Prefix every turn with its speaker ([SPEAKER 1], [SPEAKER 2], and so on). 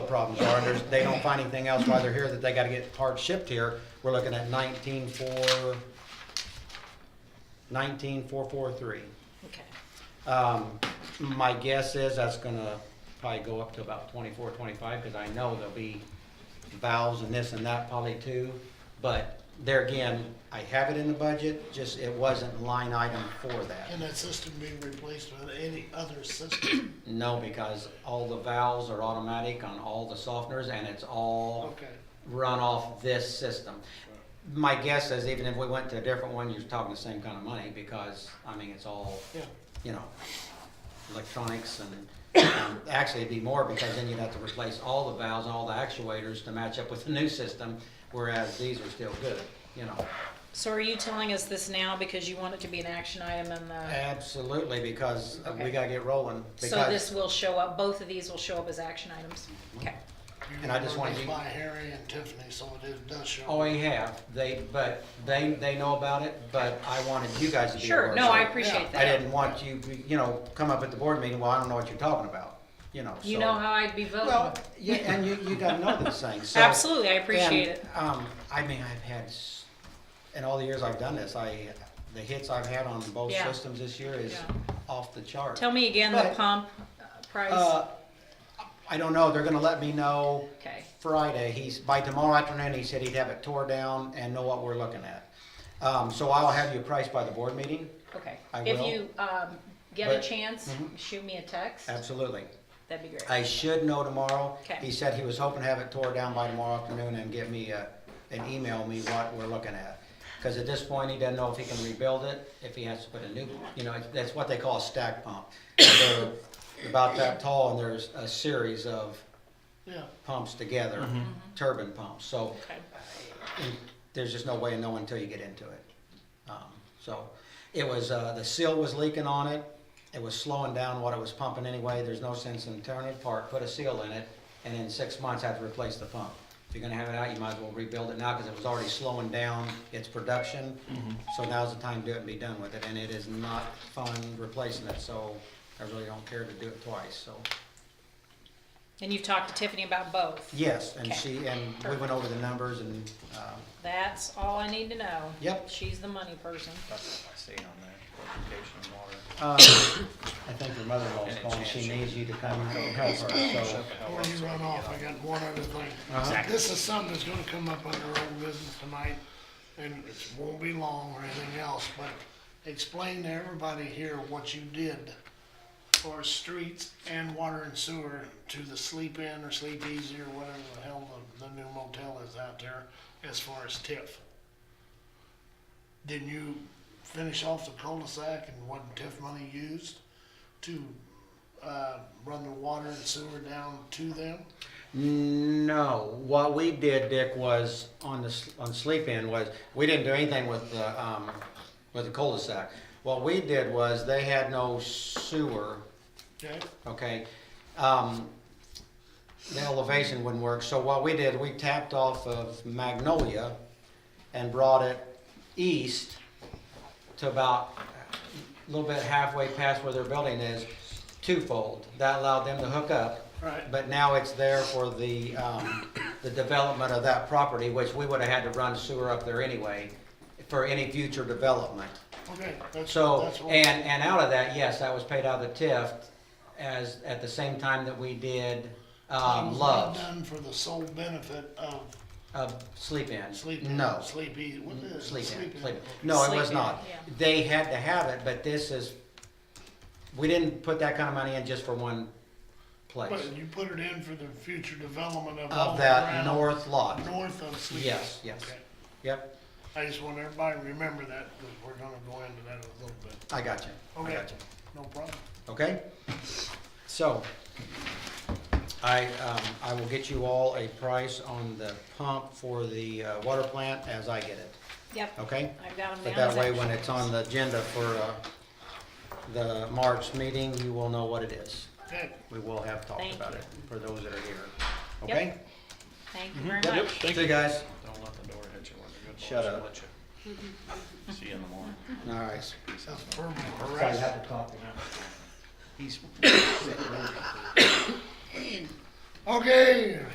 [SPEAKER 1] problems are, and there's, they don't find anything else while they're here that they gotta get parts shipped here, we're looking at nineteen four, nineteen four four three.
[SPEAKER 2] Okay.
[SPEAKER 1] Um, my guess is that's gonna probably go up to about twenty-four, twenty-five, cause I know there'll be valves and this and that probably too. But there again, I have it in the budget, just it wasn't line item for that.
[SPEAKER 3] And that system being replaced with any other system?
[SPEAKER 1] No, because all the valves are automatic on all the softeners and it's all
[SPEAKER 3] Okay.
[SPEAKER 1] run off this system. My guess is even if we went to a different one, you're talking the same kind of money because, I mean, it's all
[SPEAKER 3] Yeah,
[SPEAKER 1] you know, electronics and, um, actually it'd be more because then you'd have to replace all the valves and all the actuators to match up with the new system, whereas these are still good, you know.
[SPEAKER 2] So are you telling us this now because you want it to be an action item and the,
[SPEAKER 1] Absolutely, because we
[SPEAKER 2] Okay.
[SPEAKER 1] gotta get rolling.
[SPEAKER 2] so
[SPEAKER 1] Uh, because-
[SPEAKER 2] this will show up, both of these will show up as action items? Okay.
[SPEAKER 3] You
[SPEAKER 1] And I just
[SPEAKER 3] were
[SPEAKER 1] wanted
[SPEAKER 3] raised
[SPEAKER 1] you-
[SPEAKER 3] By Harry and Tiffany, so it is- does show.
[SPEAKER 1] Oh, we have, they, but they, they know about it, but I wanted you guys to be aware.
[SPEAKER 2] Sure, no, I
[SPEAKER 1] so
[SPEAKER 2] appreciate
[SPEAKER 1] I
[SPEAKER 2] that.
[SPEAKER 1] didn't want you, you know, come up at the board meeting, well, I don't know what you're talking about, you know, so.
[SPEAKER 2] You know how I'd be
[SPEAKER 1] Well,
[SPEAKER 2] voting.
[SPEAKER 1] yeah, and you, you gotta know these things, so.
[SPEAKER 2] Absolutely, I appreciate
[SPEAKER 1] And,
[SPEAKER 2] it.
[SPEAKER 1] Um, I mean, I've had, s- in all the years I've done this, I, the hits I've had on both
[SPEAKER 2] Yeah.
[SPEAKER 1] systems this year is
[SPEAKER 2] Yeah.
[SPEAKER 1] off the chart.
[SPEAKER 2] Tell me again the
[SPEAKER 1] But-
[SPEAKER 2] pump uh, price.
[SPEAKER 1] Uh, I don't know, they're gonna let me know
[SPEAKER 2] Okay.
[SPEAKER 1] Friday, he's, by tomorrow afternoon, he said he'd have it tore down and know what we're looking at. Um, so I'll have you priced by the board meeting,
[SPEAKER 2] Okay.
[SPEAKER 1] I
[SPEAKER 2] If
[SPEAKER 1] will.
[SPEAKER 2] you, um, get a
[SPEAKER 1] But-
[SPEAKER 2] chance, shoot me a text.
[SPEAKER 1] absolutely.
[SPEAKER 2] That'd be great.
[SPEAKER 1] I should know tomorrow.
[SPEAKER 2] Okay.
[SPEAKER 1] He said he was hoping to have it tore down by tomorrow afternoon and give me a, and email me what we're looking at. Cause at this point, he doesn't know if he can rebuild it, if he has to put a new, you know, that's what they call a stack pump. They're about that tall and there's a series of
[SPEAKER 3] Yeah,
[SPEAKER 1] pumps together, turbine pumps, so
[SPEAKER 2] Okay.
[SPEAKER 1] and there's just no way of knowing until you get into it. Um, So, it was, uh, the seal was leaking on it, it was slowing down what it was pumping anyway, there's no sense in tearing it apart, put a seal in it, and in six months have to replace the pump. If you're gonna have it out, you might as well rebuild it now, cause it was already slowing down its production, so now's the time to do it and be done with it, and it is not fun replacing it, so I really don't care to do it twice, so.
[SPEAKER 2] And you've talked to Tiffany about both.
[SPEAKER 1] Yes, and
[SPEAKER 2] Okay.
[SPEAKER 1] she, and we went over the numbers and, um,
[SPEAKER 2] That's all I need to know.
[SPEAKER 1] Yep.
[SPEAKER 2] She's the money person.
[SPEAKER 4] That's what I see on there, education and water.
[SPEAKER 1] Um, I think her mother-in-law's calling, she needs you to come and help her, Oh, so.
[SPEAKER 3] before you run off, I got one other thing.
[SPEAKER 1] Uh-huh.
[SPEAKER 3] This is something that's gonna come up under old business tonight, and it won't be long or anything else, but explain to everybody here what you did for streets and water and sewer to the sleep in or sleep easy or whatever the hell the, the new motel is out there as far as TIF. Didn't you finish off the cul-de-sac and wasn't TIF money used to, uh, run the water and sewer down to them?
[SPEAKER 1] No, what we did, Dick, was on the, s- on sleep in was, we didn't do anything with the, um, with the cul-de-sac. What we did was, they had no sewer,
[SPEAKER 3] Okay?
[SPEAKER 1] okay? Um, the elevation wouldn't work, so what we did, we tapped off of Magnolia and brought it east to about a little bit halfway past where their building is, twofold. That allowed them to hook up.
[SPEAKER 3] Right.
[SPEAKER 1] But now it's there for the, um, the development of that property, which we would've had to run sewer up there anyway for any future development.
[SPEAKER 3] Okay, that's,
[SPEAKER 1] So,
[SPEAKER 3] that's what.
[SPEAKER 1] and, and out of that, yes, that was paid out of the TIF as, at the same time that we did, um,
[SPEAKER 3] Things
[SPEAKER 1] love,
[SPEAKER 3] not Done for the sole benefit of
[SPEAKER 1] of sleep in.
[SPEAKER 3] sleep.
[SPEAKER 1] No.
[SPEAKER 3] Sleep easy, what is it?
[SPEAKER 1] Sleep in, sleep
[SPEAKER 3] Okay.
[SPEAKER 1] in. No, it was
[SPEAKER 2] Sleep in,
[SPEAKER 1] not.
[SPEAKER 2] yeah.
[SPEAKER 1] They had to have it, but this is, we didn't put that kind of money in just for one place.
[SPEAKER 3] But you put it in for the future development of all
[SPEAKER 1] Of
[SPEAKER 3] around,
[SPEAKER 1] that north lot.
[SPEAKER 3] north of sleep.
[SPEAKER 1] Yes, yes.
[SPEAKER 3] Okay.
[SPEAKER 1] Yep,
[SPEAKER 3] I just want everybody to remember that, because we're gonna go into that in a little bit.
[SPEAKER 1] I got you. I
[SPEAKER 3] Okay,
[SPEAKER 1] got you.
[SPEAKER 3] no problem.
[SPEAKER 1] Okay? So, I, um, I will get you all a price on the pump for the uh, water plant as I get it,
[SPEAKER 2] Yep.
[SPEAKER 1] okay?
[SPEAKER 2] I've got them down.
[SPEAKER 1] But that
[SPEAKER 2] as
[SPEAKER 1] way, when
[SPEAKER 2] action
[SPEAKER 1] it's on the agenda for, uh, the March meeting, you will know what it is.
[SPEAKER 3] Okay,
[SPEAKER 1] We will have talked
[SPEAKER 2] Thank
[SPEAKER 1] about
[SPEAKER 2] you.
[SPEAKER 1] it for those that are here,
[SPEAKER 2] Yep.
[SPEAKER 1] okay?
[SPEAKER 2] Thank you
[SPEAKER 1] Mm-hmm.
[SPEAKER 2] very much.
[SPEAKER 1] See you guys.
[SPEAKER 4] Don't let the door hit you when the good
[SPEAKER 1] Shut
[SPEAKER 4] boys
[SPEAKER 1] up.
[SPEAKER 4] will let you. See you in the morning.
[SPEAKER 1] All right.
[SPEAKER 3] that's verbal
[SPEAKER 1] Sorry, I
[SPEAKER 3] harassment.
[SPEAKER 1] had to talk.
[SPEAKER 4] He's.
[SPEAKER 3] Okay,